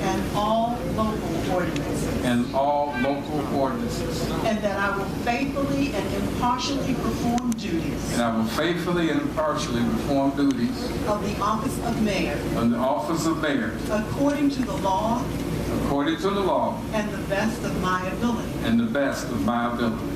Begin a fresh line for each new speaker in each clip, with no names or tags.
and all local ordinances,
and all local ordinances,
and that I will faithfully and impartially perform duties
and I will faithfully and impartially perform duties
of the office of mayor
of the office of mayor
according to the law
according to the law
and the best of my ability.
and the best of my ability.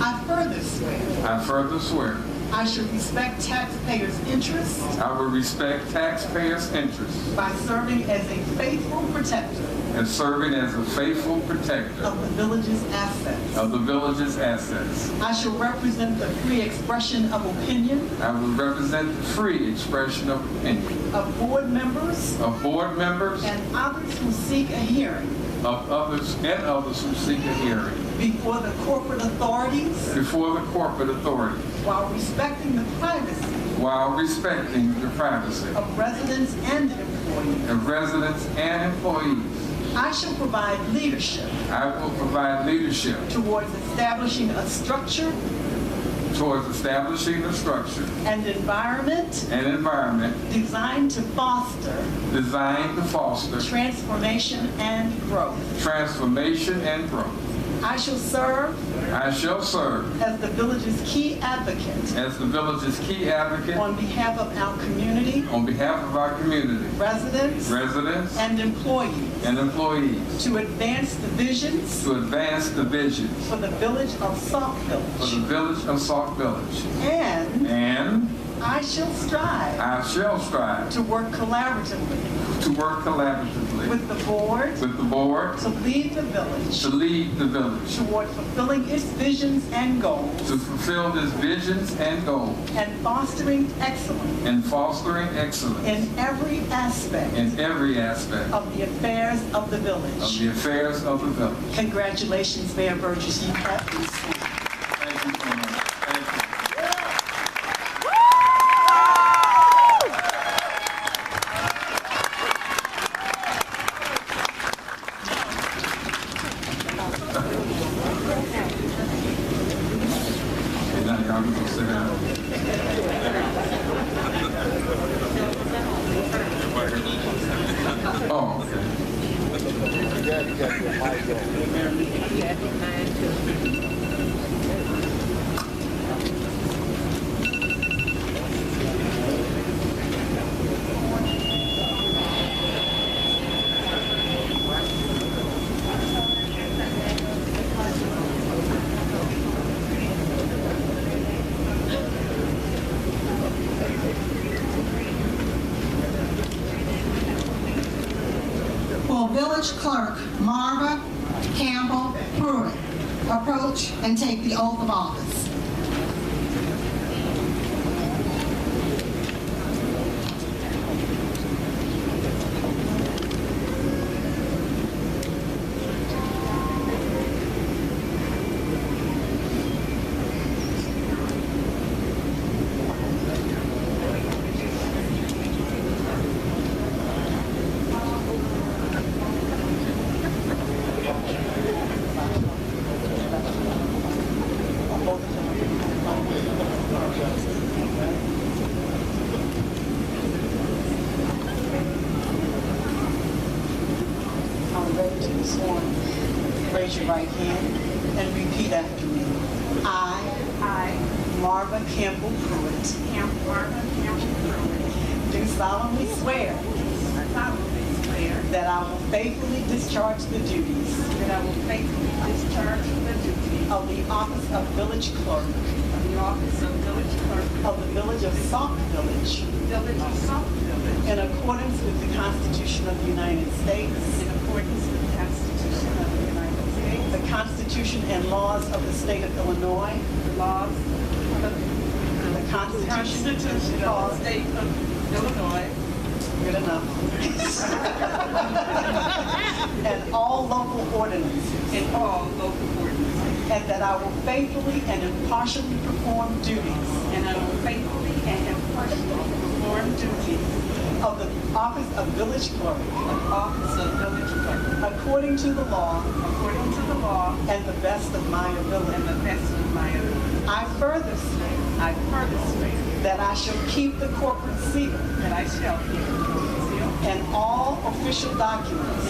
I further swear
I further swear
I should respect taxpayers' interests
I will respect taxpayers' interests
by serving as a faithful protector
and serving as a faithful protector
of the village's assets.
of the village's assets.
I shall represent the free expression of opinion
I will represent the free expression of opinion
of board members
of board members,
and others who seek a hearing
of others, and others who seek a hearing
before the corporate authorities
before the corporate authority
while respecting the privacy
while respecting the privacy
of residents and employees.
of residents and employees.
I shall provide leadership
I will provide leadership
towards establishing a structure
towards establishing a structure
and environment
and environment
designed to foster
designed to foster
transformation and growth.
transformation and growth.
I shall serve
I shall serve
as the village's key advocate
as the village's key advocate
on behalf of our community,
on behalf of our community,
residents,
residents,
and employees
and employees
to advance the visions
to advance the visions
for the village of Salt
for the
Village.
village of Sauk Village.
And
And
I shall strive
I shall strive
to work collaboratively
to work collaboratively
with the board
with the board
to lead the village
to lead the village
toward fulfilling its visions and goals
to fulfill its visions and goals
and fostering excellence
and fostering excellence
in every aspect
in every aspect
of the affairs of the
of
village.
the affairs of the village.
Congratulations, Mayor Burgess. You have been sworn.
Thank you so much. Thank you. And now y'all can go sit down. Oh, okay.
Will Village Clerk Marva Campbell Pruitt approach and take the oath of office?
I'm ready to be sworn. Raise your right hand and repeat after me. I,
I,
Marva Campbell Pruitt,
Pam Marva Campbell
do solemnly swear
Pruitt, solemnly swear
that I will faithfully discharge the duties
that I will faithfully discharge the duties
of the office of village clerk
of the office of village clerk,
of the village of Sauk Village
village of South Village,
in accordance with the Constitution of the United States,
in accordance with the Constitution of the United States,
the Constitution and laws of the state of Illinois,
the laws of
the
the
Constitution
Constitution of the State of Illinois,
Good enough. And all local ordinances.
and all local ordinances,
And that I will faithfully and impartially perform duties
and I will faithfully and impartially perform duties
of the office of village clerk
of office of village clerk
according to the law
according to the law
and the best of my
and
ability.
the best of my ability.
I further swear
I further swear
that I shall keep the corporate seal
that I shall keep the seal
and all official documents